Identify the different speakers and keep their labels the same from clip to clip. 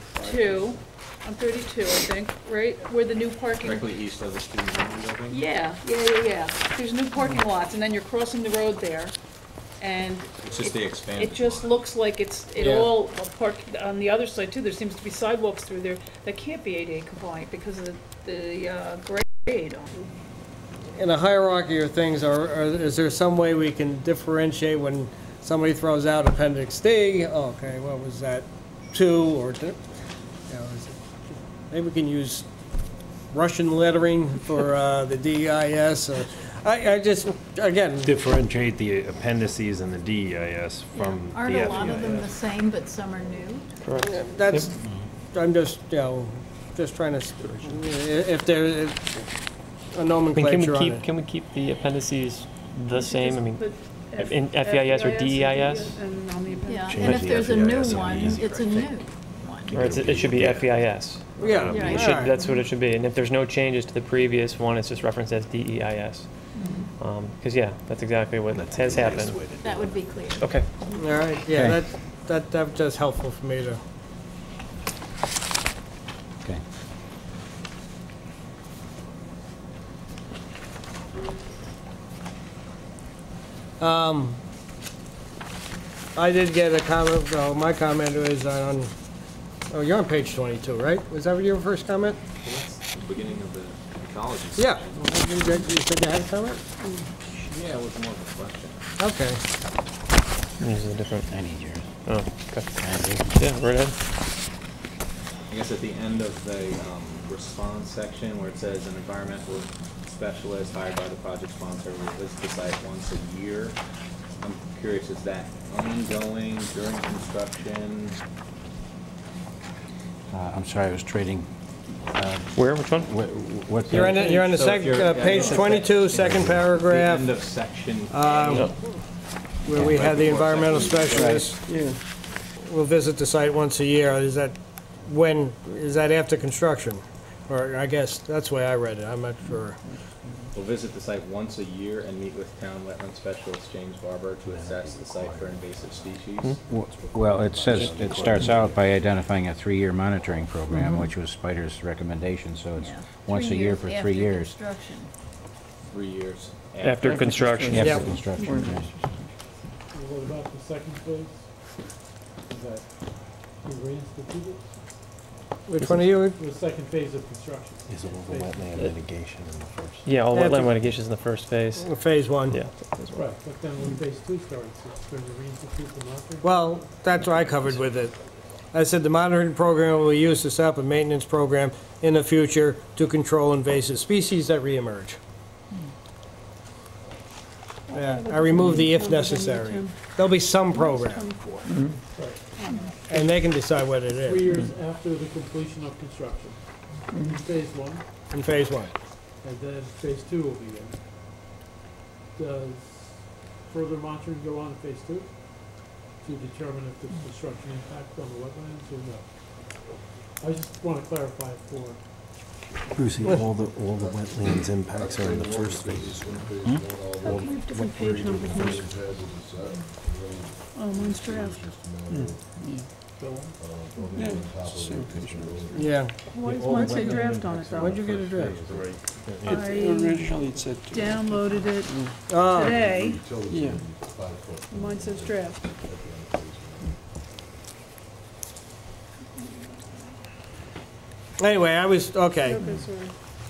Speaker 1: 32, on 32, I think, right, where the new parking.
Speaker 2: directly east of the student union building.
Speaker 1: Yeah, yeah, yeah, yeah. There's new parking lots, and then you're crossing the road there, and.
Speaker 2: It's just the expanded
Speaker 1: It just
Speaker 2: lot.
Speaker 1: looks like it's, it
Speaker 3: Yeah.
Speaker 1: all, well, park, on the other side too, there seems to be sidewalks through there that can't be ADA compliant because of the, the uh, grade on them.
Speaker 3: in a hierarchy of things, are, are, is there some way we can differentiate when somebody throws out appendix D? Oh, Okay, what was that, two or, th- you know, is it- maybe we can use Russian lettering for, uh, the DIS or, I, I just, again,
Speaker 4: differentiate the appendices and the DEIS from the E
Speaker 5: Aren't a lot of them the
Speaker 4: FEIS.
Speaker 5: same, but some are new?
Speaker 3: that's, I'm just, you know, just trying to, s- i- if there is a
Speaker 6: I mean, can
Speaker 3: nomenclature
Speaker 6: we
Speaker 3: on
Speaker 6: keep,
Speaker 3: it.
Speaker 6: can we keep the appendices the same? I mean,
Speaker 1: But F- E
Speaker 6: in FEIS or E
Speaker 1: and
Speaker 6: DEIS?
Speaker 1: And on the appendix.
Speaker 5: Yeah, and
Speaker 4: Change
Speaker 5: if
Speaker 4: the E
Speaker 5: there's a
Speaker 4: FEIS,
Speaker 5: new
Speaker 4: it'll be
Speaker 5: one,
Speaker 4: easy,
Speaker 5: it's a
Speaker 4: I
Speaker 5: new
Speaker 4: think.
Speaker 5: one.
Speaker 6: or it's, it should be
Speaker 4: E
Speaker 6: FEIS.
Speaker 3: Yeah,
Speaker 5: Yeah.
Speaker 6: It
Speaker 3: all
Speaker 6: should,
Speaker 3: right.
Speaker 6: that's what it should be. And if there's no changes to the previous one, it's just referenced as E DEIS.
Speaker 1: Mm-hmm.
Speaker 6: Because, Um, yeah, that's exactly what has happened.
Speaker 5: That would be clear.
Speaker 6: Okay.
Speaker 3: All right, yeah, that, that, that was helpful for me to.
Speaker 7: Okay.
Speaker 3: Um, I did get a comment, well, my comment was on, oh, you're on page 22, right? Was that your first comment?
Speaker 2: It's the beginning of the ecology.
Speaker 3: Yeah.
Speaker 2: section.
Speaker 3: You did- you said you had a comment?
Speaker 2: Yeah, it was more of a question.
Speaker 3: Okay.
Speaker 6: These are the different,
Speaker 7: I need yours.
Speaker 6: oh, okay.
Speaker 7: Can I do?
Speaker 6: Yeah, right ahead.
Speaker 2: I guess at the end of the um, response section where it says an environmental specialist hired by the project sponsor will visit the site once a year. I'm curious, is that ongoing during construction?
Speaker 7: Uh, I'm sorry, I was trading.
Speaker 6: Where, which one?
Speaker 7: What? what-
Speaker 3: You're on, the- you're on the
Speaker 2: So if
Speaker 3: second,
Speaker 2: you're-
Speaker 3: uh,
Speaker 2: yeah,
Speaker 3: page
Speaker 2: it's the-
Speaker 3: 22, second paragraph,
Speaker 2: The end of section. A.
Speaker 3: um, where we had the environmental
Speaker 2: Right.
Speaker 3: specialist. Will visit the site once a year. Is that when, is that after construction? Or I guess, that's the way I read it. I'm not sure.
Speaker 2: Will visit the site once a year and meet with town wetland specialist James Barber to assess the site for invasive species.
Speaker 7: w- Well, it says, it starts out by identifying a three-year monitoring program, which was Spider's recommendation, so it's
Speaker 5: Mm-hmm. Yeah.
Speaker 7: once a
Speaker 5: Three
Speaker 7: year
Speaker 5: years
Speaker 7: for
Speaker 5: after
Speaker 7: three years.
Speaker 5: construction.
Speaker 2: Three years.
Speaker 6: After construction.
Speaker 3: Yeah.
Speaker 7: After construction, yes.
Speaker 8: What about the second phase? Is that, you reinstitute it?
Speaker 3: Which one are you?
Speaker 8: The second phase of construction?
Speaker 4: Is it over
Speaker 8: Phase-
Speaker 4: wetland litigation in the first?
Speaker 6: Yeah, all
Speaker 3: After-
Speaker 6: wetland litigation is in the first phase.
Speaker 3: Phase one.
Speaker 6: Yeah.
Speaker 8: Right, but then when phase two starts, it's going to reinstitute the monitoring?
Speaker 3: Well, that's what I covered with it. I said the monitoring program will use to set up a maintenance program in the future to control invasive species that reemerge. Yeah, I removed the if necessary. There'll be some program, and they can decide what it
Speaker 8: Three
Speaker 3: is
Speaker 8: years after the completion of construction, phase one,
Speaker 3: in phase one.
Speaker 8: and then phase two will begin. Does further monitoring go on in phase two to determine if there's construction impact on the wetlands or no? I just want to clarify for,
Speaker 4: Brucey, all the, all the wetlands impacts are in the first phase.
Speaker 1: How come you have different page numbers? Oh, mine's for F.
Speaker 8: Bill,
Speaker 3: Yeah.
Speaker 1: Why does mine say draft on it though?
Speaker 3: Where'd you get a draft?
Speaker 9: It- Originally, it said, two.
Speaker 1: downloaded it
Speaker 3: Oh,
Speaker 1: today.
Speaker 9: yeah,
Speaker 1: Mine says draft.
Speaker 3: anyway, I was, okay.
Speaker 1: Okay, sorry.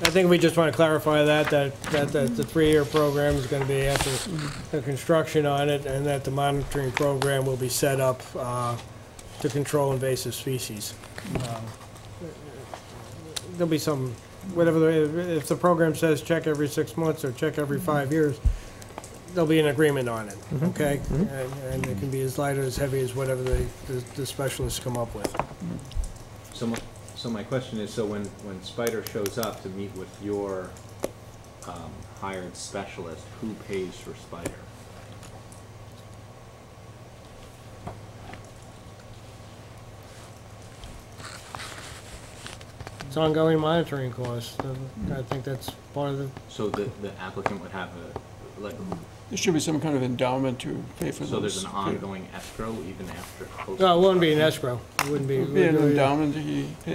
Speaker 3: I think we just want to clarify that, that, that, that the three-year program is going to be after the construction on it, and that the monitoring program will be set up, uh, to control invasive species. Um, There'll be some, whatever, the- if the program says check every six months or check every five years, there'll be an agreement on it, okay? And, and it can be as light or as heavy as whatever the, the- the specialists come up with.
Speaker 2: So my, so my question is, so when, when Spider shows up to meet with your um, hired specialist, who pays for Spider?
Speaker 3: It's ongoing monitoring costs, I think that's part of the,
Speaker 2: So the, the applicant would have a, like,
Speaker 9: There should be some kind of endowment to pay for those.
Speaker 2: So there's an ongoing escrow even after post.
Speaker 3: No, it wouldn't be an escrow. It wouldn't be.
Speaker 9: Be an endowment, he